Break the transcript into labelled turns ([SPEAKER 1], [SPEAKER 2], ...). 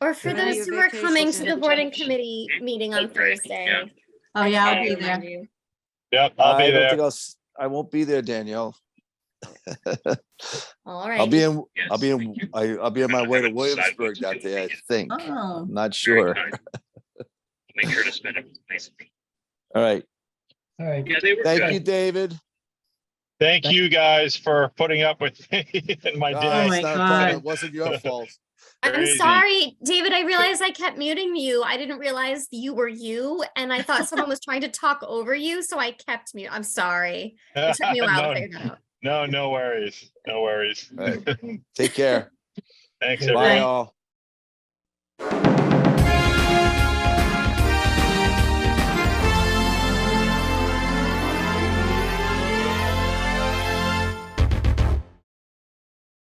[SPEAKER 1] Or for
[SPEAKER 2] Can I
[SPEAKER 1] those
[SPEAKER 2] have
[SPEAKER 1] who are coming to
[SPEAKER 2] vacation
[SPEAKER 1] the
[SPEAKER 2] and
[SPEAKER 1] board and
[SPEAKER 2] change?
[SPEAKER 1] committee meeting on
[SPEAKER 3] Okay, yeah.
[SPEAKER 1] Thursday.
[SPEAKER 2] Oh, yeah, I'll
[SPEAKER 1] Okay.
[SPEAKER 2] be there.
[SPEAKER 4] Yep, I'll
[SPEAKER 5] I
[SPEAKER 4] be
[SPEAKER 5] don't
[SPEAKER 4] there.
[SPEAKER 5] think I'll s- I won't be there, Danielle.
[SPEAKER 1] All
[SPEAKER 5] I'll be
[SPEAKER 1] right.
[SPEAKER 5] in, I'll be in, I, I'll be on my way to
[SPEAKER 3] Haven't decided what
[SPEAKER 5] Williamsburg
[SPEAKER 3] to
[SPEAKER 5] that
[SPEAKER 3] do
[SPEAKER 5] day, I
[SPEAKER 3] yet.
[SPEAKER 5] think. I'm
[SPEAKER 2] Oh,
[SPEAKER 5] not sure.
[SPEAKER 3] Make sure to spend it nicely.
[SPEAKER 5] All right.
[SPEAKER 6] All right.
[SPEAKER 3] Yeah, they were
[SPEAKER 5] Thank you,
[SPEAKER 3] good.
[SPEAKER 5] David.
[SPEAKER 4] Thank you guys for putting up with me and my
[SPEAKER 5] Ah,
[SPEAKER 2] Oh
[SPEAKER 4] day.
[SPEAKER 2] my
[SPEAKER 5] it's not a problem.
[SPEAKER 2] God.
[SPEAKER 5] It wasn't your fault.
[SPEAKER 1] I'm
[SPEAKER 4] crazy.
[SPEAKER 1] sorry, David, I realized I kept muting you. I didn't realize you were you and I thought someone was trying to talk over you, so I kept mute. I'm sorry. It took me a while to
[SPEAKER 4] No,
[SPEAKER 1] figure that out.
[SPEAKER 4] No, no worries, no worries.
[SPEAKER 5] All right. Take care.
[SPEAKER 4] Thanks,
[SPEAKER 5] Bye
[SPEAKER 4] everyone.
[SPEAKER 5] all.